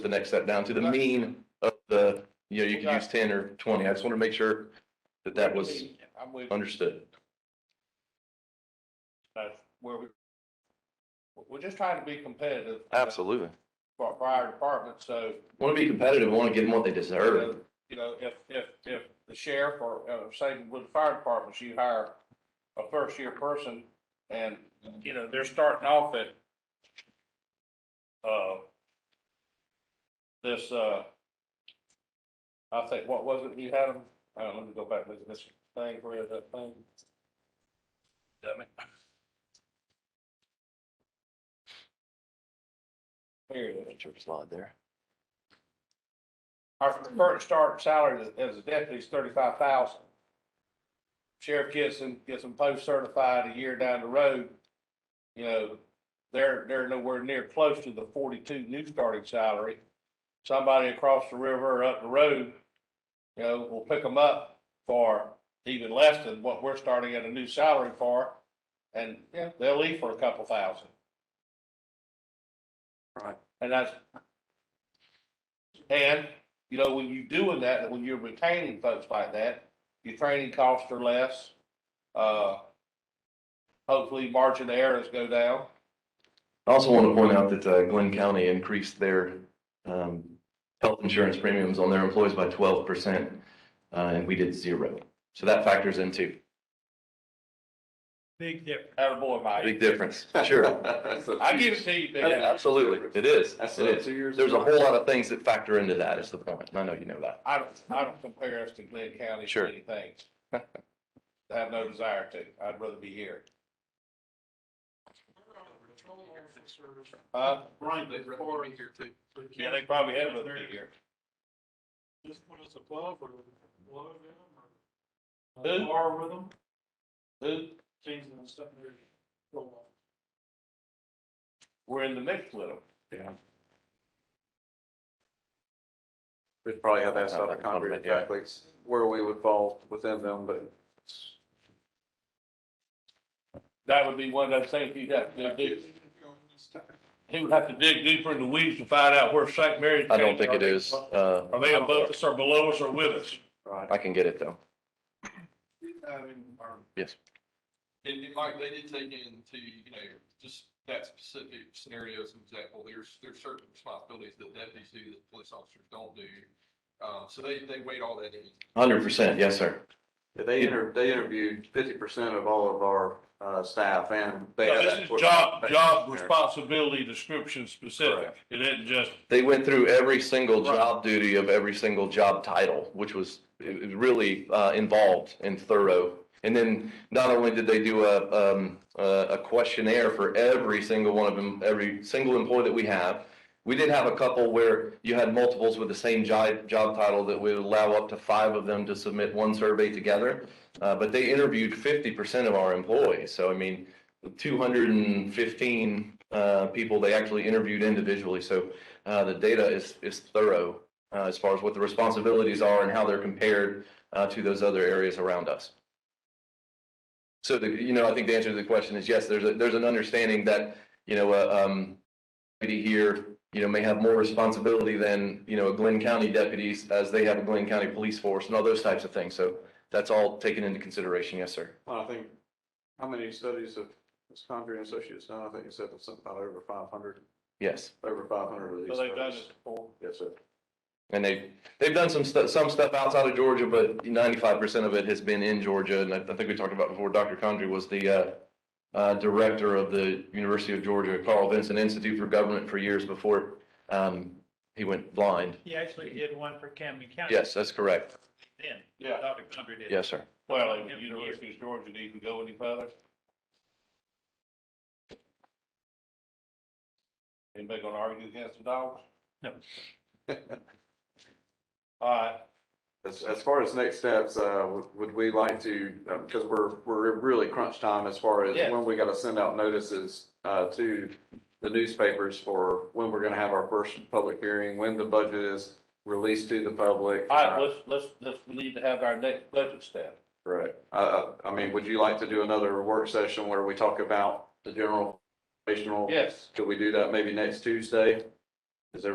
the next step down to the mean of the, you know, you could use ten or twenty. I just want to make sure that that was I'm with, understood. that's where we, we're just trying to be competitive. Absolutely. For for our department, so, Want to be competitive, want to give them what they you deserve. know, you know, if, if, if the sheriff or, uh, say with the fire departments, you hire a first year person and, you know, they're starting off at, uh, this, uh, I think, what was it you had them? Uh, let me go back, look at this thing, where is that thing? Dummy. Here it is. slide there. Our current start salary as- as a deputy is thirty-five thousand. Sheriff gets them, gets them post-certified a year down the road. You know, they're, they're nowhere near close to the forty-two new starting salary. Somebody across the river or up the road, you know, will pick them up for even less than what we're starting at a new salary for. And, yeah, they'll leave for a couple thousand. Right. And that's, and you know, when you're doing that, when you're retaining folks like that, your training costs are less. Uh, hopefully margin of errors go down. I also want to point out that uh, Glenn County increased their um, health insurance premiums on their employees by twelve percent, uh, and we did zero. So that factors into Big difference. Attaboy, big Mike. difference. Sure, I give it to you, Yeah, Big. absolutely, it is. That's It uh, is. two years. There's a ago. whole lot of things that factor into that. Is the point. And I know you know that. I don't, I don't compare us to Glenn County Sure. for anything. I have no desire to. I'd rather be here. Uh, Brian, they'd rather be here too. yeah, they probably had rather be here. Just put us above or below them or. Who? Par with them, Who? change them something. there. Roll We're in the mix with them. We'd probably have asked Have out that of concrete comment, yeah. exactly where we would fall within them, but That would be one of those things you'd have to do. off. He would have to dig deeper in the weeds to find out where St. Mary's. I don't came think it from. is. Uh, Are they above us or below us or with us? right. I can get it though. I mean, or. Yes. And, and Mike, they did take into, you know, just that specific scenario as an example, there's, there's certain responsibilities that deputies do that police officers don't do. Um, so they, they weighed all that in. Hundred percent, yes, sir. Yeah, They inter, they interviewed fifty percent of all of our, uh, staff and they No, had This that. is job, job There. responsibility description specific. It isn't just, They went through every single Right. job duty of every single job title, which was it- it really uh, involved and thorough. And then not only did they do a, um, a a questionnaire for every single one of them, every single employee that we have. We did have a couple where you had multiples with the same job, job title that would allow up to five of them to submit one survey together. Uh, but they interviewed fifty percent of our employees. So I mean, two hundred and fifteen uh, people they actually interviewed individually. So uh, the data is, is thorough uh, as far as what the responsibilities are and how they're compared uh, to those other areas around us. So, the, you know, I think the answer to the question is yes, there's, a, there's an understanding that, you know, a um, deputy here, you know, may have more responsibility than, you know, a Glenn County deputies as they have a Glenn County police force and all those types of things. So that's all taken into consideration. Yes, sir. Well, I think, how many studies have this concrete and associates done? I think you said it's something about over five hundred, Yes. over five hundred of these. so they've done studies. this before. Yes, sir. And they, they've done some stuff, some stuff outside of Georgia, but ninety-five percent of it has been in Georgia. And I, I think we talked about before, Dr. Condrey was the, uh, uh, director of the University of Georgia Carl Vinson Institute for Government for years before, um, he went blind. He actually did one for Camden County. Yes, that's correct. Then, Yeah, Dr. Cumber did. Yes, sir. well, like, the University of Georgia didn't go any further. Anybody gonna argue against the dogs? No. All right, As, as far as next steps, uh, would, would we like to, uh, because we're, we're in really crunch time as far as Yeah. when we gotta send out notices, uh, to the newspapers for when we're gonna have our first public hearing, when the budget is released to the public. all right, let's, let's, let's, we need to have our next budget step. Right. Uh, I mean, would you like to do another work session where we talk about the general, operational? Yes, Could we do that maybe next Tuesday?